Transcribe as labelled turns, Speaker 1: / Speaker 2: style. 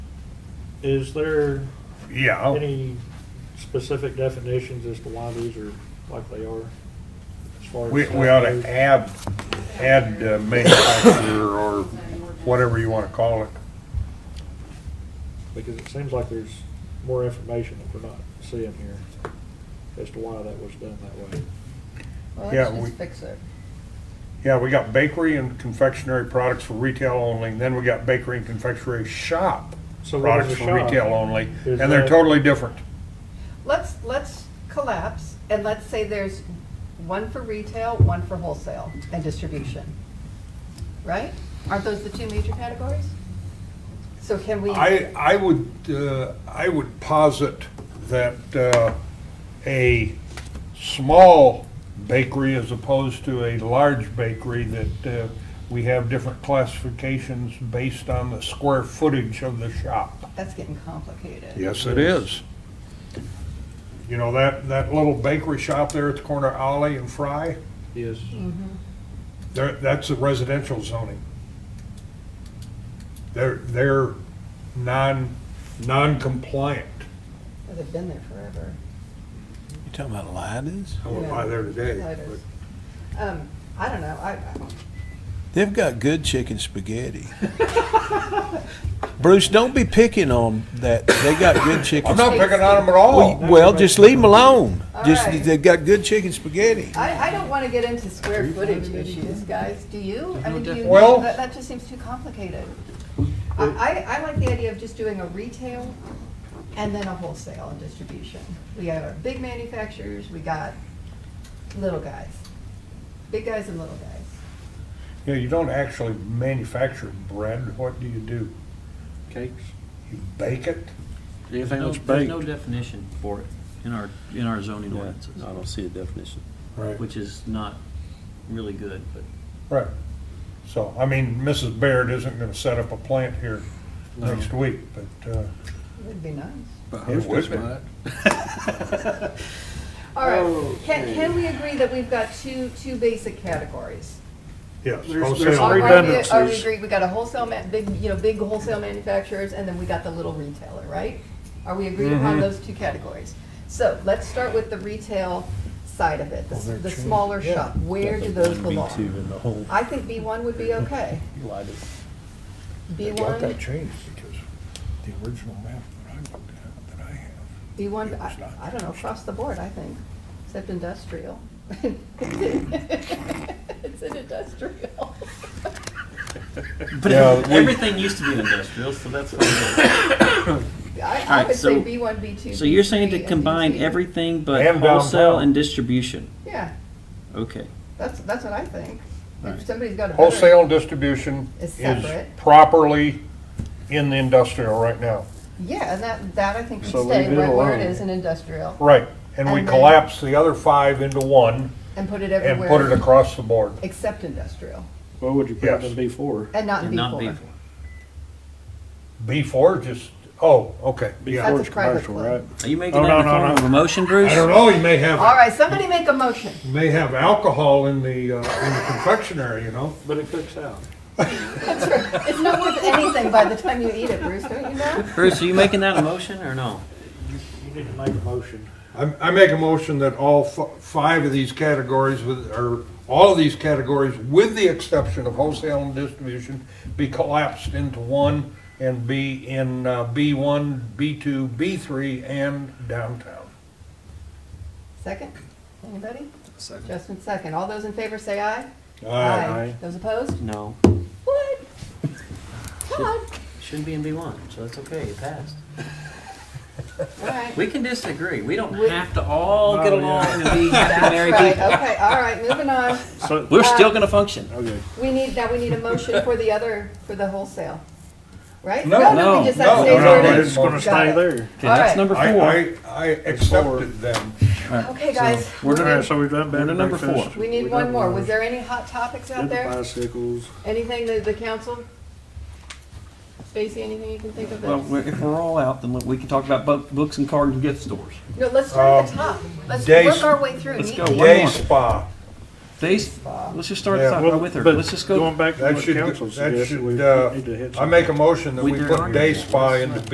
Speaker 1: Is there
Speaker 2: Yeah,
Speaker 1: any specific definitions as to why these are like they are? as far as
Speaker 2: we,
Speaker 1: that
Speaker 2: we ought
Speaker 1: goes?
Speaker 2: to add, add uh, manufacturer or whatever you wanna call it.
Speaker 1: Because it seems like there's more information that we're not seeing here as to why that was done that way.
Speaker 3: Well,
Speaker 2: Yeah,
Speaker 3: let's
Speaker 2: we-
Speaker 3: just fix it.
Speaker 2: Yeah, we got bakery and confectionery products for retail only, and then we got bakery and confectionery shop
Speaker 1: So what
Speaker 2: products
Speaker 1: is a
Speaker 2: for
Speaker 1: shop?
Speaker 2: retail only,
Speaker 1: Is
Speaker 2: and they're
Speaker 1: that-
Speaker 2: totally different.
Speaker 3: Let's, let's collapse and let's say there's one for retail, one for wholesale and distribution. Right? Aren't those the two major categories? So can we?
Speaker 2: I, I would, uh, I would posit that uh, a small bakery as opposed to a large bakery, that uh, we have different classifications based on the square footage of the shop.
Speaker 3: That's getting complicated.
Speaker 2: Yes, it is. You know, that, that little bakery shop there at the corner of Ollie and Fry,
Speaker 1: Yes.
Speaker 3: Mm-hmm.
Speaker 2: there- that's a residential zoning. They're, they're non, non-compliant.
Speaker 3: Well, They've been there forever.
Speaker 4: You talking about Lyden's?
Speaker 2: I went by there today.
Speaker 3: Lighters. Um, I don't know, I,
Speaker 4: They've got good chicken spaghetti. Bruce, don't be picking on that. They got good
Speaker 2: but I'm
Speaker 4: chicken.
Speaker 2: not picking on them at all.
Speaker 4: Well, well, just leave them alone.
Speaker 3: All
Speaker 4: Just
Speaker 3: right.
Speaker 4: they've got good chicken spaghetti.
Speaker 3: I, I don't want to get into square footage issues, guys, do you? I mean, do you,
Speaker 2: Well-
Speaker 3: that, that just seems too complicated. I, I, I like the idea of just doing a retail and then a wholesale and distribution. We got our big manufacturers, we got little guys, big guys and little guys.
Speaker 2: You know, you don't actually manufacture bread. What do you do?
Speaker 5: Cakes?
Speaker 2: You bake it?
Speaker 5: Anything
Speaker 6: There's
Speaker 5: that's
Speaker 6: no- There's
Speaker 5: baked?
Speaker 6: no definition for it in our, in our zoning
Speaker 5: Yeah,
Speaker 6: ordinances,
Speaker 5: I don't see a definition.
Speaker 2: Right.
Speaker 6: which is not really good, but
Speaker 2: Right. So, I mean, Mrs. Baird isn't gonna set up a plant here
Speaker 6: No.
Speaker 2: next week, but, uh,
Speaker 3: Would be nice.
Speaker 5: But
Speaker 2: It would be.
Speaker 3: All right, can, can we agree that we've got two, two basic categories?
Speaker 2: yes.
Speaker 5: There's-
Speaker 2: wholesale
Speaker 5: there's
Speaker 3: Are we-
Speaker 2: bread.
Speaker 3: Are we
Speaker 5: redundancies.
Speaker 3: agreed, we got a wholesale ma, big, you know, big wholesale manufacturers, and then we got the little retailer, right? Are we agreed upon those two categories? So let's start with the retail side of it, the s- the smaller shop, where do those belong?
Speaker 5: in the whole
Speaker 3: I think B one would be okay. B one,
Speaker 4: changed because the original map that I looked at, that I have.
Speaker 3: B one, I,
Speaker 4: It's not
Speaker 3: I don't know, across the board, I think, except industrial. It's an industrial.
Speaker 6: But
Speaker 2: Yeah, we-
Speaker 6: everything used to be industrial, so that's fine.
Speaker 3: I, I
Speaker 6: Alright,
Speaker 3: would say
Speaker 6: so-
Speaker 3: B one, B two.
Speaker 6: So you're saying to
Speaker 3: B3, and
Speaker 6: combine
Speaker 3: B2.
Speaker 6: everything but
Speaker 2: And
Speaker 6: wholesale
Speaker 2: downtown.
Speaker 6: and distribution?
Speaker 3: Yeah.
Speaker 6: Okay.
Speaker 3: That's, that's what I think. If
Speaker 6: Right.
Speaker 3: somebody's got a. better-
Speaker 2: Wholesale distribution
Speaker 3: Is
Speaker 2: is
Speaker 3: separate.
Speaker 2: properly in the industrial right now.
Speaker 3: Yeah, and that, that I think should
Speaker 5: So
Speaker 3: stay
Speaker 5: leave it
Speaker 3: right where it
Speaker 5: alone.
Speaker 3: is in industrial
Speaker 2: Right, and we
Speaker 3: And then-
Speaker 2: collapse the other five into one
Speaker 3: and put it
Speaker 2: and put it
Speaker 3: everywhere
Speaker 2: across the board.
Speaker 3: except industrial
Speaker 5: What would you put it
Speaker 2: Yes.
Speaker 5: in B four?
Speaker 3: and not in
Speaker 6: And not
Speaker 3: B4.
Speaker 6: B4.
Speaker 2: B four just, oh, okay,
Speaker 5: B
Speaker 2: yeah.
Speaker 3: That's
Speaker 5: four
Speaker 3: a
Speaker 5: is
Speaker 3: private
Speaker 5: commercial,
Speaker 3: club.
Speaker 5: right?
Speaker 6: Are you making
Speaker 2: Oh,
Speaker 6: that in
Speaker 2: no,
Speaker 6: the
Speaker 2: no,
Speaker 6: form
Speaker 2: no.
Speaker 6: of a motion, Bruce?
Speaker 2: I don't know, you may
Speaker 3: All
Speaker 2: have,
Speaker 3: right, somebody make a motion.
Speaker 2: you may have alcohol in the, uh, in the confectionery, you know?
Speaker 1: But it cooks out.
Speaker 3: It's not worth anything by the time you eat it, Bruce, don't you know?
Speaker 6: Bruce, are you making that a motion or no?
Speaker 1: You need to make a motion.
Speaker 2: I, I make a motion that all f- five of these categories with, or all of these categories, with the exception of wholesale and distribution, be collapsed into one and be in uh, B1, B2, B3, and downtown.
Speaker 3: Second, anybody? Second. Justin, second. All those in favor say aye? Those opposed?
Speaker 6: No.
Speaker 3: What? Come on.
Speaker 6: Shouldn't be in B1, so that's okay, it passed.
Speaker 3: All right.
Speaker 6: We can disagree. We don't
Speaker 3: We-
Speaker 6: have to all get
Speaker 2: Oh,
Speaker 6: along and be happy married
Speaker 3: Right,
Speaker 6: people.
Speaker 3: okay, all right, moving on.
Speaker 6: We're still going to function.
Speaker 5: Okay.
Speaker 3: We need, now we need a motion for the other, for the wholesale, right?
Speaker 2: No,
Speaker 3: we
Speaker 6: no,
Speaker 3: just
Speaker 2: no,
Speaker 3: have stays
Speaker 2: no,
Speaker 3: where it
Speaker 2: no,
Speaker 3: is.
Speaker 2: it's gonna
Speaker 3: Got it.
Speaker 6: Okay,
Speaker 3: All
Speaker 6: that's
Speaker 3: right.
Speaker 6: number
Speaker 2: I,
Speaker 6: four.
Speaker 2: I, I accepted them.
Speaker 3: Okay, guys.
Speaker 6: We're
Speaker 3: we
Speaker 6: gonna-
Speaker 3: need-
Speaker 5: So we've done
Speaker 6: We're to number four.
Speaker 3: We need one more. Was there any hot topics out there?
Speaker 5: Bicycles.
Speaker 3: Anything that the council? Stacy, anything you can think of?
Speaker 6: Well,
Speaker 3: that-
Speaker 6: we're- if we're all out, then we can talk about bu- books and cards and gift stores.
Speaker 3: No, let's start at the
Speaker 2: Um,
Speaker 3: top. Let's
Speaker 2: days-
Speaker 3: work our way through.
Speaker 6: Let's
Speaker 3: Neat
Speaker 6: go.
Speaker 3: deal.
Speaker 6: One
Speaker 2: Day
Speaker 6: more.
Speaker 2: spa,
Speaker 6: These, let's just start
Speaker 2: Yeah.
Speaker 6: at the
Speaker 2: Well,
Speaker 6: top with her. Let's just go.
Speaker 5: Going back to
Speaker 2: that
Speaker 5: what
Speaker 2: should,
Speaker 5: council
Speaker 2: that
Speaker 5: suggested, we
Speaker 2: should,
Speaker 5: need to hit
Speaker 2: uh, I
Speaker 5: something.
Speaker 2: make a motion that
Speaker 6: We
Speaker 2: we
Speaker 6: did
Speaker 2: put
Speaker 6: already.
Speaker 2: day spa into